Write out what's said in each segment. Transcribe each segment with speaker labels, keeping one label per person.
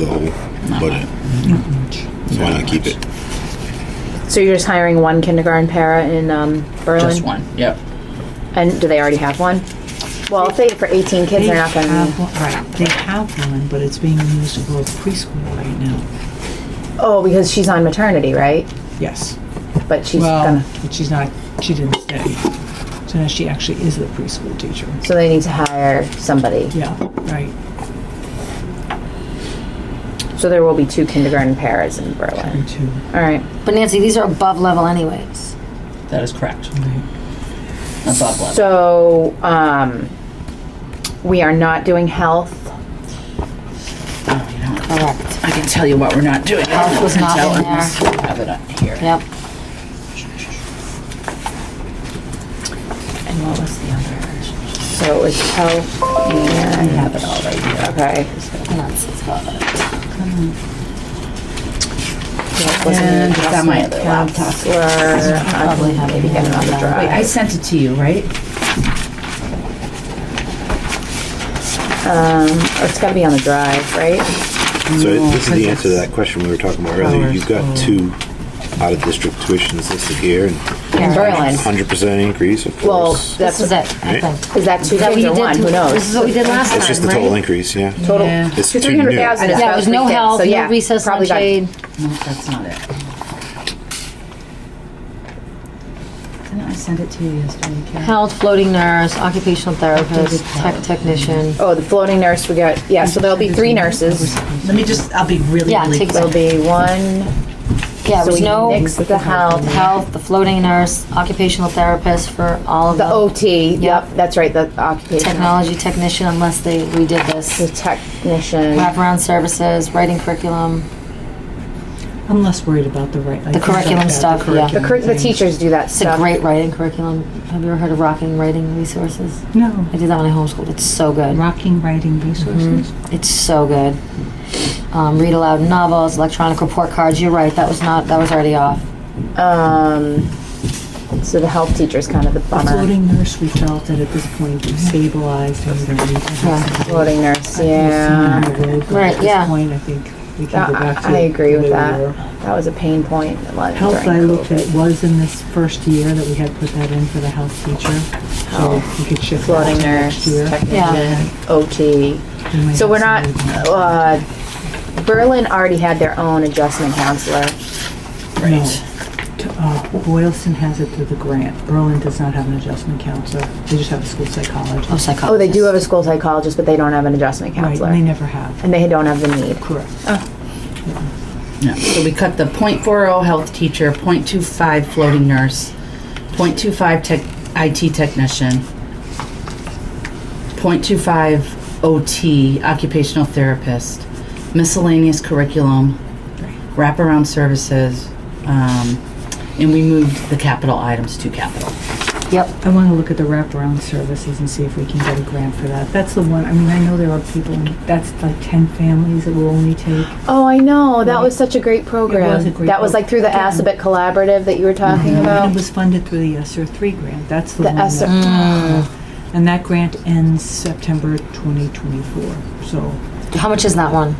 Speaker 1: the whole budget. So why not keep it?
Speaker 2: So you're just hiring one kindergarten para in um, Berlin?
Speaker 3: Just one, yep.
Speaker 2: And do they already have one? Well, if they for 18 kids,
Speaker 4: They
Speaker 2: they're not going
Speaker 4: have
Speaker 2: to.
Speaker 4: one- Right, they have one, but it's being used for preschool right now.
Speaker 2: Oh, because she's on maternity, right?
Speaker 4: Yes.
Speaker 2: But she's
Speaker 4: Well,
Speaker 2: gonna.
Speaker 4: but she's not, she didn't stay. So now she actually is the preschool teacher.
Speaker 2: So they need to hire somebody.
Speaker 4: Yeah, right.
Speaker 2: So there will be two kindergarten paras in Berlin.
Speaker 4: Me too.
Speaker 2: All right.
Speaker 5: But Nancy, these are above level anyways.
Speaker 3: That is correct. Above level.
Speaker 2: So um, we are not doing health.
Speaker 3: Oh, you know,
Speaker 5: Correct.
Speaker 3: I can tell you what we're not doing.
Speaker 5: Health was not
Speaker 3: Tell
Speaker 5: in
Speaker 3: us. Have it up here.
Speaker 5: Yep.
Speaker 3: And what was the other?
Speaker 2: So it's health and.
Speaker 3: Have it all right here.
Speaker 2: Okay.
Speaker 5: That's got it.
Speaker 2: That wasn't an
Speaker 3: And got my
Speaker 2: adjustment.
Speaker 3: laptop.
Speaker 2: Counselor, I
Speaker 5: Probably
Speaker 2: can
Speaker 5: have
Speaker 2: maybe get another
Speaker 5: another.
Speaker 3: Wait, I
Speaker 2: drive.
Speaker 3: sent it to you, right?
Speaker 2: It's gotta be on the drive, right?
Speaker 1: So
Speaker 3: No,
Speaker 1: this is the answer to
Speaker 3: because-
Speaker 1: that question we were talking about earlier. You've got two out-of-district tuitions listed here, and
Speaker 2: In Berlin.
Speaker 1: hundred percent increase, of
Speaker 2: Well,
Speaker 1: course.
Speaker 2: that's,
Speaker 5: This
Speaker 2: is
Speaker 5: is it, I
Speaker 1: Right.
Speaker 5: think.
Speaker 2: that two
Speaker 5: Is that what
Speaker 2: kids
Speaker 5: you
Speaker 2: or
Speaker 5: did
Speaker 2: one?
Speaker 5: to-
Speaker 2: Who knows?
Speaker 5: This is what we did last
Speaker 1: It's just the
Speaker 5: time,
Speaker 1: total
Speaker 5: right?
Speaker 1: increase, yeah.
Speaker 2: Total,
Speaker 3: Yeah.
Speaker 1: It's
Speaker 2: to
Speaker 1: too
Speaker 2: three hundred thousand
Speaker 1: new.
Speaker 2: is
Speaker 5: Yeah, it was no
Speaker 2: about
Speaker 5: health,
Speaker 2: three kids, so yeah,
Speaker 5: no recess, no
Speaker 2: probably got-
Speaker 5: shade.
Speaker 3: No, that's not it. Didn't I send it to you yesterday, Karen?
Speaker 5: Health, floating nurse, occupational therapist, tech
Speaker 3: Health.
Speaker 5: technician.
Speaker 2: Oh, the floating nurse, we got, yeah, so there'll be three nurses.
Speaker 3: Let me just, I'll be really,
Speaker 5: Yeah,
Speaker 3: really
Speaker 5: take
Speaker 2: There'll be one,
Speaker 5: Yeah, it
Speaker 2: so we
Speaker 5: was no
Speaker 2: nixed the health,
Speaker 5: health, the floating nurse, occupational therapist for all of
Speaker 2: the
Speaker 5: the
Speaker 2: OT, yep,
Speaker 5: Yep.
Speaker 2: that's right, the occupational.
Speaker 5: technology technician unless they redid
Speaker 2: The
Speaker 5: this.
Speaker 2: technician,
Speaker 5: Wraparound services, writing curriculum.
Speaker 4: I'm less worried about the right. like,
Speaker 5: The curriculum
Speaker 4: the
Speaker 5: stuff, yeah.
Speaker 2: the cur- the teachers do that
Speaker 5: It's a
Speaker 2: stuff.
Speaker 5: great writing curriculum. Have you ever heard of Rocking Writing Resources?
Speaker 4: No,
Speaker 5: I did that when I homeschooled. It's so good.
Speaker 4: rocking writing
Speaker 3: Mm-hmm.
Speaker 4: resources.
Speaker 5: It's so good. Um, read aloud novels, electronic report cards. You're right. That was not. That was already off.
Speaker 2: Um, so the health teacher's kind of the
Speaker 4: The
Speaker 2: bummer,
Speaker 4: floating nurse, we felt that at this point we stabilized and we don't need to have
Speaker 5: Yeah.
Speaker 4: something
Speaker 2: floating nurse,
Speaker 4: that's
Speaker 2: yeah.
Speaker 4: seen on the road, but
Speaker 5: Right,
Speaker 4: At
Speaker 5: yeah.
Speaker 4: this point, I think we
Speaker 2: I
Speaker 4: can go back to.
Speaker 2: I agree
Speaker 4: the way
Speaker 2: with
Speaker 4: we
Speaker 2: that.
Speaker 4: were.
Speaker 2: That was a pain point. like,
Speaker 4: Health, I
Speaker 2: during
Speaker 4: looked
Speaker 2: COVID.
Speaker 4: at, was in this first year that we had put that in for the health teacher. So
Speaker 2: Health,
Speaker 4: we could shift that
Speaker 2: Floating
Speaker 4: to
Speaker 2: Oh.
Speaker 4: next
Speaker 2: nurse,
Speaker 4: year.
Speaker 2: technician, OT.
Speaker 4: We might
Speaker 2: So
Speaker 4: have
Speaker 2: we're
Speaker 4: some
Speaker 2: not,
Speaker 4: movement.
Speaker 2: uh, Berlin already had their own adjustment counselor.
Speaker 4: No. T- uh, Boylston has it through the grant. Berlin does not have an adjustment counselor. They just have a school
Speaker 5: Oh,
Speaker 4: psychologist.
Speaker 5: psychologist.
Speaker 2: Oh, they do have a school psychologist, but they don't have an adjustment
Speaker 4: Right, and they
Speaker 2: counselor.
Speaker 4: never have.
Speaker 2: And they don't have the need.
Speaker 4: Correct.
Speaker 3: No, so we cut the .40 health teacher, .25 floating nurse, .25 tech, IT technician, .25 OT, occupational therapist, miscellaneous curriculum, wraparound services, um, and we moved the capital items to capital.
Speaker 5: Yep.
Speaker 4: I want to look at the wraparound services and see if we can get a grant for that. That's the one, I mean, I know there are people, in- that's like 10 families that will only take.
Speaker 2: Oh, I know. That was such a great program.
Speaker 4: was a great
Speaker 2: That was like through the
Speaker 4: program.
Speaker 2: Assabet Collaborative that you were talking
Speaker 4: And it
Speaker 2: about.
Speaker 4: was funded through the ESSER 3 grant. That's the
Speaker 2: The
Speaker 4: one. that- Mm.
Speaker 2: ESSER.
Speaker 4: And that grant ends September 2024. So
Speaker 5: How much is that one?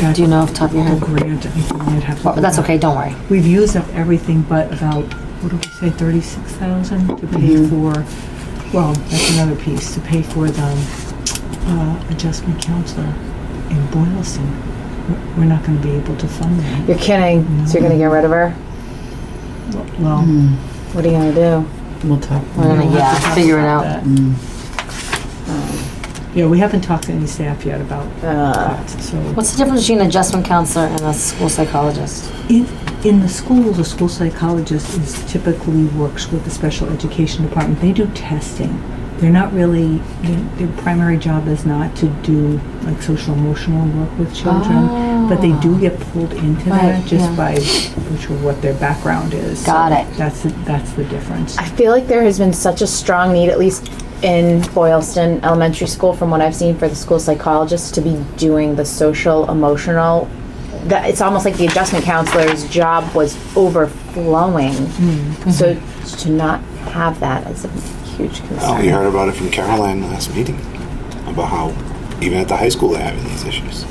Speaker 4: that
Speaker 5: Do you know off the top of your
Speaker 4: the
Speaker 5: head?
Speaker 4: grant, I think we might have. to
Speaker 5: Well, that's
Speaker 4: look
Speaker 5: okay. Don't worry.
Speaker 4: We've used up everything but about, what did we say, thirty-six thousand to pay
Speaker 5: Mm-hmm.
Speaker 4: for, well, that's another piece, to pay for the, uh, adjustment counselor in Boylston. We're- We're not gonna be able to fund that.
Speaker 2: You're kidding. So you're gonna get rid of her?
Speaker 4: Well,
Speaker 2: What are you gonna do?
Speaker 3: We'll talk.
Speaker 5: We're gonna
Speaker 4: we'll have to
Speaker 5: yeah
Speaker 4: talk
Speaker 5: figure it
Speaker 4: about
Speaker 5: out. Mm.
Speaker 4: that. Yeah, we haven't talked to any staff yet about that, so.
Speaker 5: What's the difference between an adjustment counselor and a school psychologist?
Speaker 4: In, in the schools, a school psychologist is typically works with the special education department. They do testing. They're not really, their, their primary job is not to do like social emotional work with children, but they
Speaker 5: Oh.
Speaker 4: do get pulled into
Speaker 5: Right,
Speaker 4: that just
Speaker 5: yeah.
Speaker 4: by virtue of what their background is.
Speaker 5: Got
Speaker 4: So
Speaker 5: it.
Speaker 4: That's, the- that's the difference.
Speaker 2: I feel like there has been such a strong need, at least in Boylston Elementary School, from what I've seen, for the school psychologists to be doing the social, emotional. That it's almost like the adjustment counselor's job was overflowing. So to not have that is a huge
Speaker 1: Oh, you
Speaker 2: concern.
Speaker 1: heard about it from Caroline last meeting about how even at the high school they're having these issues.